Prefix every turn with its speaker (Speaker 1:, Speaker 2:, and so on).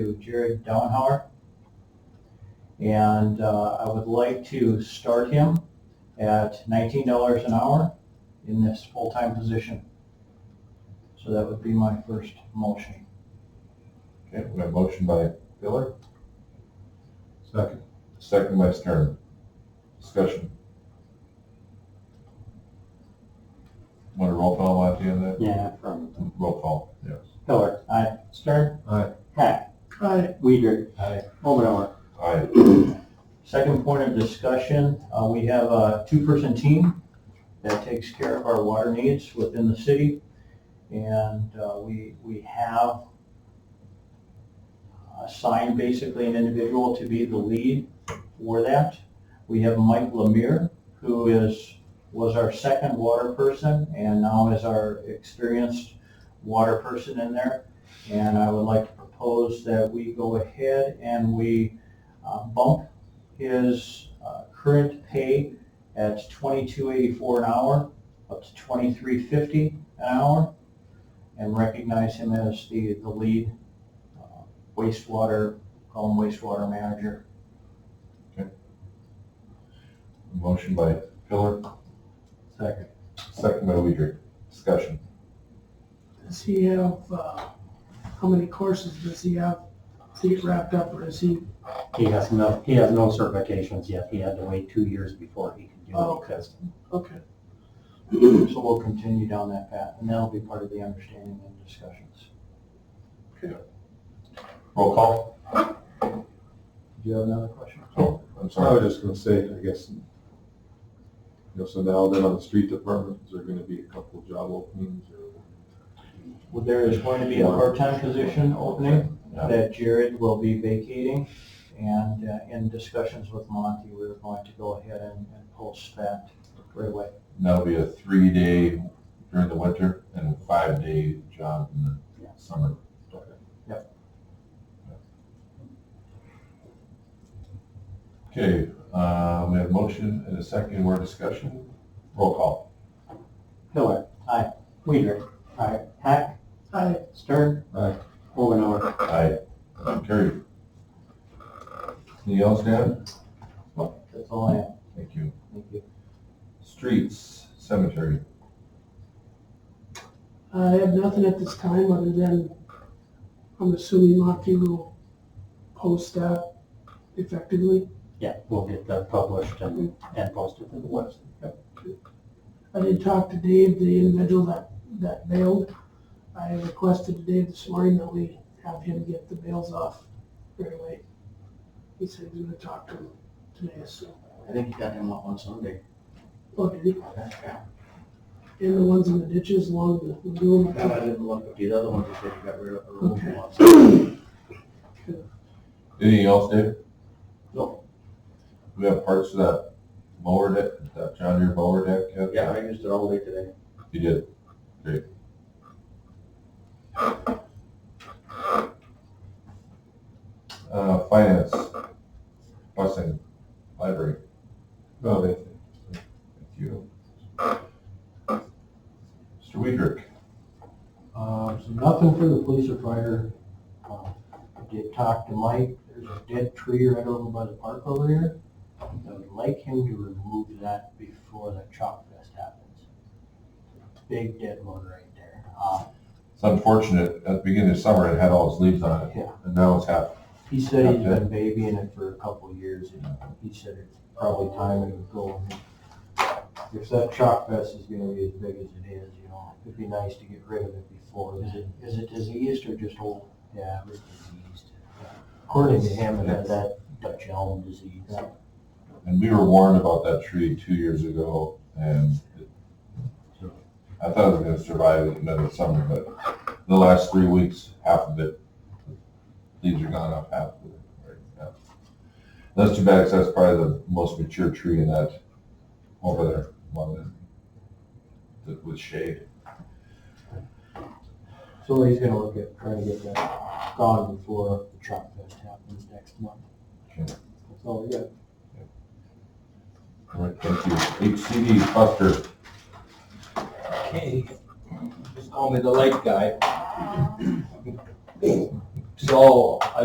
Speaker 1: to Jared Downhar. And uh, I would like to start him at nineteen dollars an hour in this full-time position. So that would be my first motion.
Speaker 2: Okay, we have a motion by Miller,
Speaker 3: Second.
Speaker 2: second by Stern. Discussion. Want a roll call at the end of
Speaker 1: Yeah, from
Speaker 2: that? Roll call, yes.
Speaker 1: Pillar. Aye. Stern.
Speaker 3: Aye.
Speaker 1: Hack. Aye. Weider. Aye. Omenauer.
Speaker 2: Aye.
Speaker 1: Second point of discussion, uh, we have a two-person team that takes care of our water needs within the city. And uh, we, we have assigned basically an individual to be the lead for that. We have Mike Lemire, who is, was our second water person and now is our experienced water person in there. And I would like to propose that we go ahead and we uh, bump his uh, current pay at twenty-two eighty-four an hour, up to twenty-three fifty an hour, and recognize him as the, the lead uh, wastewater, call him wastewater manager.
Speaker 2: Motion by Pillar,
Speaker 1: Second.
Speaker 2: second by Weider. Discussion.
Speaker 4: Does he have, uh, how many courses does he have to get wrapped up, or is he,
Speaker 5: He has no, he has no certifications yet. He had to wait two years before he could do
Speaker 4: Oh,
Speaker 5: any testing.
Speaker 4: okay.
Speaker 1: So we'll continue down that path, and that'll be part of the understanding and discussions.
Speaker 2: Roll call?
Speaker 1: Do you have another question?
Speaker 2: Oh, I'm
Speaker 3: I
Speaker 2: sorry.
Speaker 3: was just gonna say, I guess, you know, so now then on the street department, is there gonna be a couple of job openings or?
Speaker 1: Well, there is going to be a part-time position opening,
Speaker 2: Yeah.
Speaker 1: that Jared will be vacating. And uh, in discussions with Monty, we're going to go ahead and and post that right away.
Speaker 2: That'll be a three-day during the winter and a five-day job in the
Speaker 5: Yeah.
Speaker 2: summer. Okay, uh, we have a motion and a second, more discussion. Roll call.
Speaker 1: Pillar. Aye. Weider. Aye. Hack.
Speaker 4: I,
Speaker 1: Stern.
Speaker 3: Aye.
Speaker 1: Omenauer.
Speaker 2: Aye. Carried. Anything else, Dan?
Speaker 1: That's all I have.
Speaker 2: Thank you.
Speaker 1: Thank you.
Speaker 2: Streets, cemetery.
Speaker 4: I have nothing at this time, other than, I'm assuming Monty will post that effectively.
Speaker 5: Yeah, we'll get that published and,
Speaker 4: Mm-hmm.
Speaker 5: and posted to the website.
Speaker 4: I did talk to Dave, the individual that, that bailed. I requested to Dave this morning that we have him get the bails off right away. He said he was gonna talk to him today, so,
Speaker 1: I think you got him out on Sunday.
Speaker 4: oh, did he?
Speaker 1: Yeah,
Speaker 4: And the ones in the ditches along the lagoon.
Speaker 1: didn't look. The other one just said you got rid of.
Speaker 4: removed him
Speaker 2: Anything else, Dave?
Speaker 1: No.
Speaker 2: We have parts of that mower deck, that John Deere mower deck yet?
Speaker 1: I used it all day today.
Speaker 2: You did. Great. Uh, finance, busing, library.
Speaker 3: Oh, they,
Speaker 2: Thank you. Mr. Weidrich,
Speaker 1: Uh, so nothing for the police or fire. Uh, I did talk to Mike, there's a dead tree right over by the park over here. I would like him to remove that before the chalk fest happens. Big dead one right there. Uh,
Speaker 2: it's unfortunate, at the beginning of summer, it had all its leaves on it,
Speaker 1: yeah,
Speaker 2: and now it's half
Speaker 1: he said he's been babying it for a couple of years and he said it's probably time it would go. If that chalk fest is gonna be as big as it is, you know, it'd be nice to get rid of it before. Is it, is it diseased or just old?
Speaker 5: Yeah, it was diseased.
Speaker 1: According to him, it
Speaker 5: Had
Speaker 1: has
Speaker 5: that Dutch elm disease.
Speaker 2: And we were warned about that tree two years ago, and it- I thought it was gonna survive another summer, but the last three weeks, half of it, leaves are gone off half of it. right, yeah. That's too bad, 'cause that's probably the most mature tree in that, over there, one that, that with shade.
Speaker 1: So he's gonna look at trying to get that gone before the truck fest happens next month.
Speaker 2: Okay.
Speaker 1: That's all we got.
Speaker 2: All right, thank you. HCD Buster,
Speaker 6: Hey, just call me the light guy. So, I